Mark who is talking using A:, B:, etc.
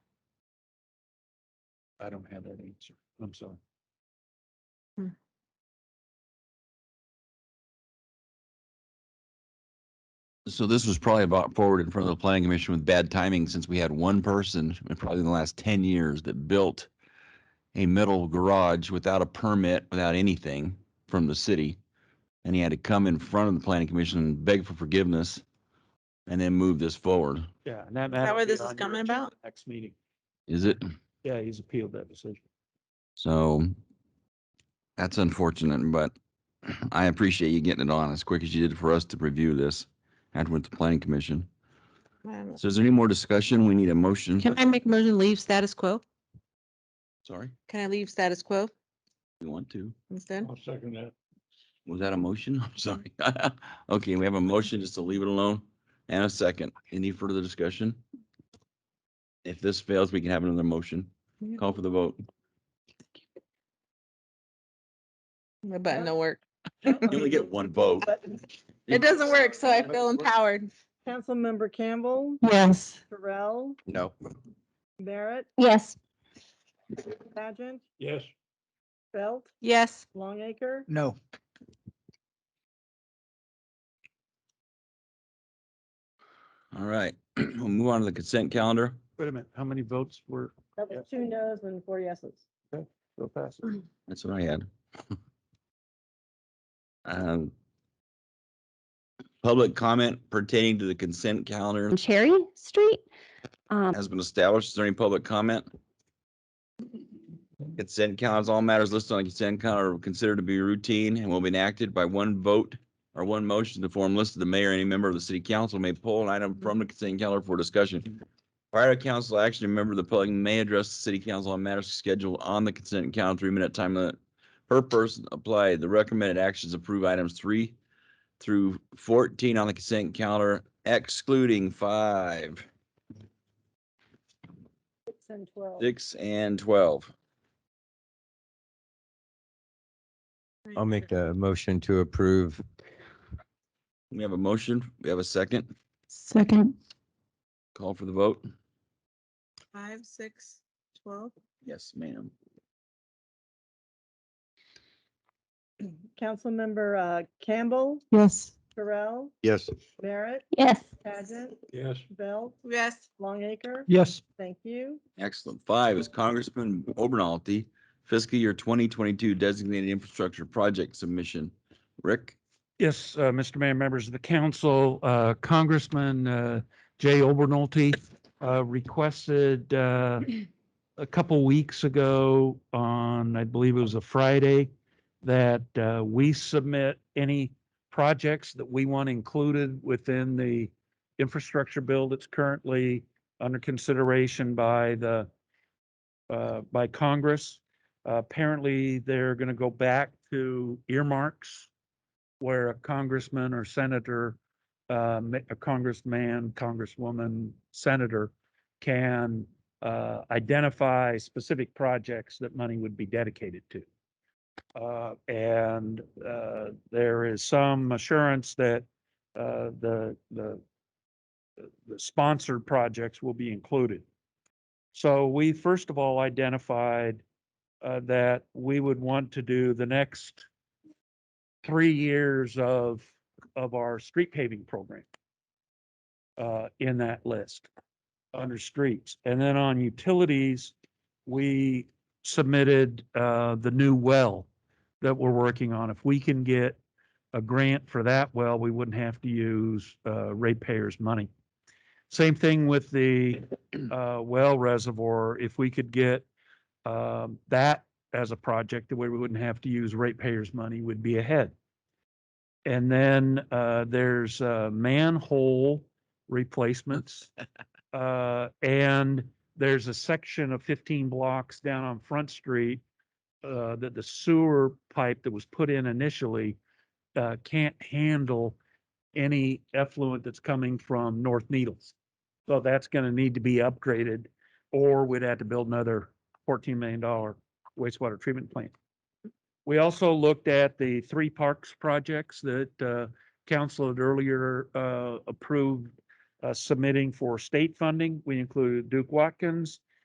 A: I don't have that answer. I'm sorry.
B: So this was probably brought forward in front of the planning commission with bad timing since we had one person, in probably in the last ten years, that built a metal garage without a permit, without anything from the city. And he had to come in front of the planning commission and beg for forgiveness and then move this forward.
A: Yeah, and that.
C: that
A: that'll
C: where
A: be
C: this is
A: on your
C: coming
A: agenda
C: about?
A: Next meeting.
B: Is it?
A: Yeah, he's appealed that decision.
B: So that's unfortunate, but I appreciate you getting it on as quick as you did for us to review this after with the planning commission.
C: Um,
B: So is there any more discussion? We need a motion.
D: Can I make a motion to leave status quo?
B: Sorry,
C: Can I leave status quo
B: you want to?
C: instead?
A: I'll second that.
B: Was that a motion? I'm sorry.
C: Mm-hmm.
B: Okay, we have a motion just to leave it alone and a second. Any further discussion? If this fails, we can have another motion.
C: Yeah.
B: Call for the vote.
C: The button don't work.
B: You only get one vote.
C: It doesn't work, so I feel empowered.
E: Councilmember Campbell,
D: Yes.
E: Terrell,
B: No.
E: Barrett,
D: Yes.
E: Pageant,
A: Yes.
E: Belt,
D: Yes.
E: Longacre,
F: No.
B: All right, we'll move on to the consent calendar.
A: Wait a minute, how many votes were,
E: that was two noes and four yeses.
A: go past?
B: That's what I had. Um, Public comment pertaining to the consent calendar
G: on Cherry Street. Um,
B: has been established. Is there any public comment? Consent counts, all matters listed on consent calendar are considered to be routine and will be enacted by one vote or one motion to form list of the mayor, any member of the city council may pull an item from the consent calendar for discussion. Prior to council action, a member of the public may address the city council on matters scheduled on the consent calendar, three-minute time limit per person applied. The recommended actions approve items three through fourteen on the consent calendar excluding five
E: Six and twelve.
B: Six and twelve.
H: I'll make the motion to approve.
B: We have a motion. We have a second.
D: Second.
B: Call for the vote.
C: Five, six, twelve.
B: Yes, ma'am.
E: Councilmember uh, Campbell,
D: Yes.
E: Terrell,
F: Yes.
E: Barrett,
G: yes,
E: Pageant,
A: Yes.
E: Belt,
C: Yes.
E: Longacre.
A: Yes.
E: Thank you.
B: Excellent. Five is Congressman Obernolte, fiscal year twenty twenty-two designated infrastructure project submission. Rick?
A: Yes, uh, Mr. Mayor, members of the council, uh, Congressman uh, Jay Obernolte uh, requested uh, a couple weeks ago on, I believe it was a Friday, that uh, we submit any projects that we want included within the infrastructure bill that's currently under consideration by the, uh, by Congress. Apparently, they're going to go back to earmarks where a congressman or senator, uh, ma- a congressman, congresswoman, senator can uh, identify specific projects that money would be dedicated to. Uh, And uh, there is some assurance that uh, the, the the sponsored projects will be included. So we first of all identified uh, that we would want to do the next three years of, of our street paving program uh, in that list, under streets. And then on utilities, we submitted uh, the new well that we're working on. If we can get a grant for that well, we wouldn't have to use uh, ratepayers' money. Same thing with the uh, well reservoir. If we could get um, that as a project, the way we wouldn't have to use ratepayers' money would be ahead. And then uh, there's uh, manhole replacements. Uh, And there's a section of 15 blocks down on Front Street uh, that the sewer pipe that was put in initially uh, can't handle any effluent that's coming from North Needles. So that's going to need to be upgraded, or we'd have to build another $14 million wastewater treatment plant. We also looked at the three parks projects that uh, council had earlier uh, approved uh, submitting for state funding. We included Duke Watkins,